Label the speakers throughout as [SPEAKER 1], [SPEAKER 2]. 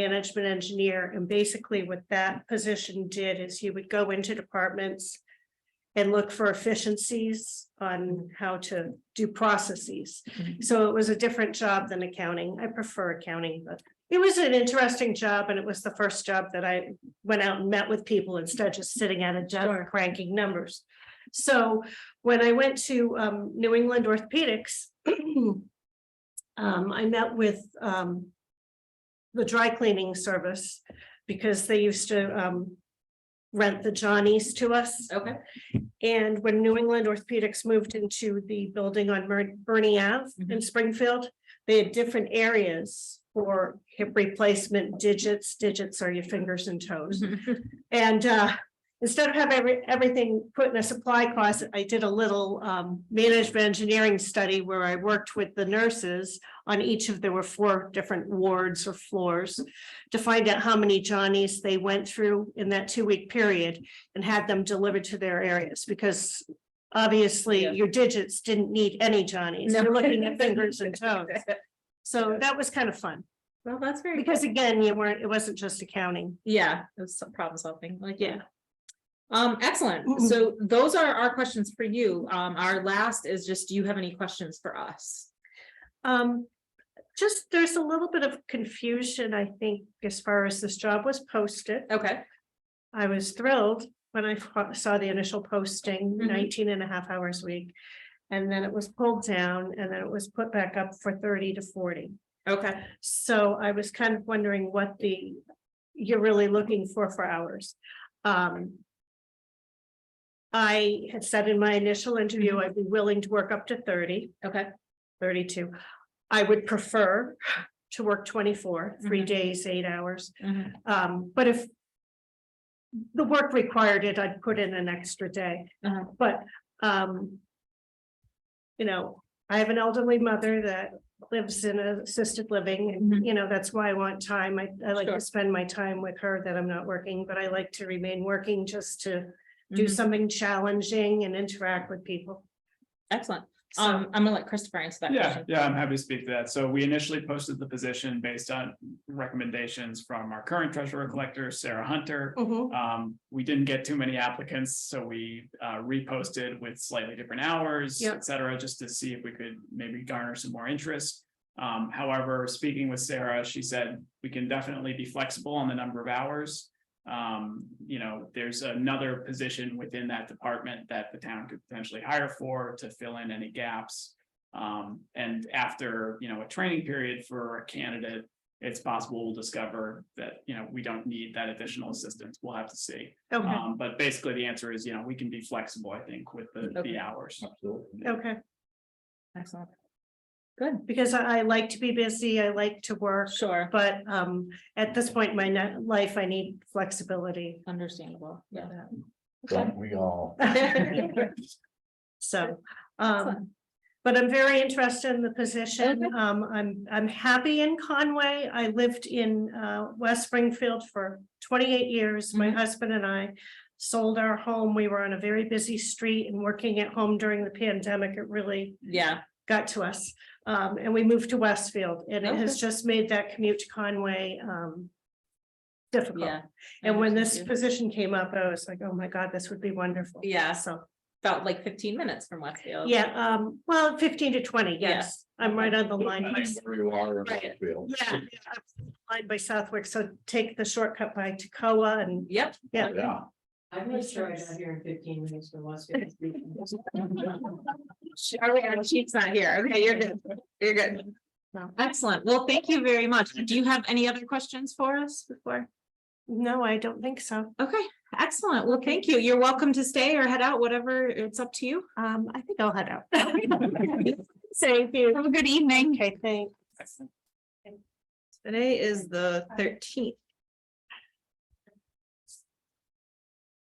[SPEAKER 1] management engineer, and basically what that position did is you would go into departments and look for efficiencies on how to do processes.
[SPEAKER 2] Mhm.
[SPEAKER 1] So it was a different job than accounting. I prefer accounting, but it was an interesting job and it was the first job that I went out and met with people instead of just sitting at a desk cranking numbers. So when I went to um New England Orthopedics, um, I met with um the dry cleaning service because they used to um rent the Johnnies to us.
[SPEAKER 2] Okay.
[SPEAKER 1] And when New England Orthopedics moved into the building on Mer- Bernie Ave in
[SPEAKER 2] Mhm.
[SPEAKER 1] Springfield, they had different areas for hip replacement digits. Digits are your fingers and toes. And uh, instead of having every- everything put in a supply cost, I did a little um, management engineering study where I worked with the nurses on each of, there were four different wards or floors to find out how many Johnnies they went through in that two-week period and had them delivered to their areas because obviously
[SPEAKER 2] Yeah.
[SPEAKER 1] your digits didn't need any Johnnies.
[SPEAKER 2] No.
[SPEAKER 1] You're looking at fingers and toes. So that was kind of fun
[SPEAKER 2] Well, that's very,
[SPEAKER 1] because again, you weren't, it wasn't just accounting.
[SPEAKER 2] yeah, it was some problem solving, like, yeah.
[SPEAKER 1] Yeah.
[SPEAKER 2] Um, excellent. So those are our questions for you. Um, our last is just, do you have any questions for us?
[SPEAKER 1] Um, just, there's a little bit of confusion, I think, as far as this job was posted.
[SPEAKER 2] Okay.
[SPEAKER 1] I was thrilled when I fo- saw the initial posting,
[SPEAKER 2] Mhm.
[SPEAKER 1] 19 and a half hours a week. And then it was pulled down and then it was put back up for thirty to forty.
[SPEAKER 2] Okay.
[SPEAKER 1] So I was kind of wondering what the, you're really looking for for hours. Um. I had said in my initial interview, I'd be willing to work up to thirty.
[SPEAKER 2] Okay.
[SPEAKER 1] thirty-two. I would prefer to work twenty-four, three
[SPEAKER 2] Mhm.
[SPEAKER 1] days, eight hours,
[SPEAKER 2] Mhm.
[SPEAKER 1] um, but if the work required it, I'd put in an extra day,
[SPEAKER 2] Uh-huh.
[SPEAKER 1] but, um, you know, I have an elderly mother that lives in assisted living, and,
[SPEAKER 2] Mhm.
[SPEAKER 1] you know, that's why I want time. I, I like
[SPEAKER 2] Sure.
[SPEAKER 1] to spend my time with her that I'm not working, but I like to remain working just to do
[SPEAKER 2] Mhm.
[SPEAKER 1] something challenging and interact with people.
[SPEAKER 2] Excellent.
[SPEAKER 1] Mm-hmm. So-
[SPEAKER 2] Um, I'm gonna let Christopher answer that
[SPEAKER 3] Yeah,
[SPEAKER 2] question.
[SPEAKER 3] yeah, I'm happy to speak to that. So we initially posted the position based on recommendations from our current treasurer collector, Sarah Hunter.
[SPEAKER 1] Mhm.
[SPEAKER 3] Um, we didn't get too many applicants, so we uh reposted with slightly different hours,
[SPEAKER 1] Yep.
[SPEAKER 3] et cetera, just to see if we could maybe garner some more interest. Um, however, speaking with Sarah, she said we can definitely be flexible on the number of hours. Um, you know, there's another position within that department that the town could potentially hire for to fill in any gaps. Um, and after, you know, a training period for a candidate, it's possible we'll discover that, you know, we don't need that additional assistance. We'll have to see.
[SPEAKER 1] Okay,
[SPEAKER 2] uh,
[SPEAKER 3] Um, but basically the answer is, you know, we can be flexible, I think, with the,
[SPEAKER 2] Okay.
[SPEAKER 3] the hours.
[SPEAKER 4] Absolutely.
[SPEAKER 1] okay.
[SPEAKER 2] Excellent. Good,
[SPEAKER 1] because I, I like to be busy, I like to work,
[SPEAKER 2] sure,
[SPEAKER 1] but um, at this point in my ni- life, I need flexibility.
[SPEAKER 2] understandable, yeah.
[SPEAKER 4] Don't we all?
[SPEAKER 1] So,
[SPEAKER 2] Excellent.
[SPEAKER 1] um, but I'm very interested in the position.
[SPEAKER 2] Okay.
[SPEAKER 1] Um, I'm, I'm happy in Conway. I lived in uh, West Springfield for twenty-eight years. My
[SPEAKER 2] Mhm.
[SPEAKER 1] husband and I sold our home. We were on a very busy street and working at home during the pandemic. It really
[SPEAKER 2] Yeah,
[SPEAKER 1] got to us. Um, and we moved to Westfield and it has
[SPEAKER 2] Okay.
[SPEAKER 1] just made that commute to Conway, um. Difficult.
[SPEAKER 2] yeah.
[SPEAKER 1] And when this
[SPEAKER 2] Understand.
[SPEAKER 1] position came up, I was like, oh my God, this would be wonderful.
[SPEAKER 2] Yeah.
[SPEAKER 1] So,
[SPEAKER 2] About like fifteen minutes from Westfield.
[SPEAKER 1] yeah, um, well, fifteen to twenty,
[SPEAKER 2] Yeah.
[SPEAKER 1] yes. I'm right on the line.
[SPEAKER 4] I
[SPEAKER 1] by-
[SPEAKER 4] mean, where you are in
[SPEAKER 1] Right.
[SPEAKER 4] Westfield.
[SPEAKER 1] Yeah. yeah, I'm Line by Southwick, so take the shortcut by Tacoma and
[SPEAKER 2] Yep,
[SPEAKER 4] Yeah.
[SPEAKER 5] I'm gonna start out here in fifteen minutes from Las Vegas.
[SPEAKER 2] All right, our chief's not here. Okay, you're good. You're good. Excellent. Well, thank you very much. Do you have any other questions for us before?
[SPEAKER 1] no, I don't think so.
[SPEAKER 2] Okay, excellent. Well, thank you. You're welcome to stay or head out, whatever. It's up to you.
[SPEAKER 1] Um, I think I'll head out.
[SPEAKER 2] Say, have a good evening.
[SPEAKER 1] Okay, thanks.
[SPEAKER 2] Today is the thirteenth.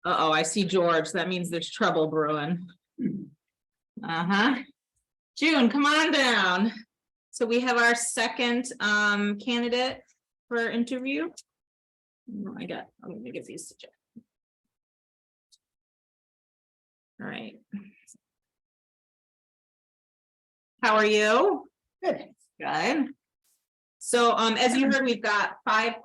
[SPEAKER 2] Uh-oh, I see George. That means there's trouble brewing. Uh-huh. June, come on down. So we have our second um candidate for interview. Oh, I got, I'm gonna give these to Jeff. All right. How are you? Good. Good. So um, as you heard, we've got five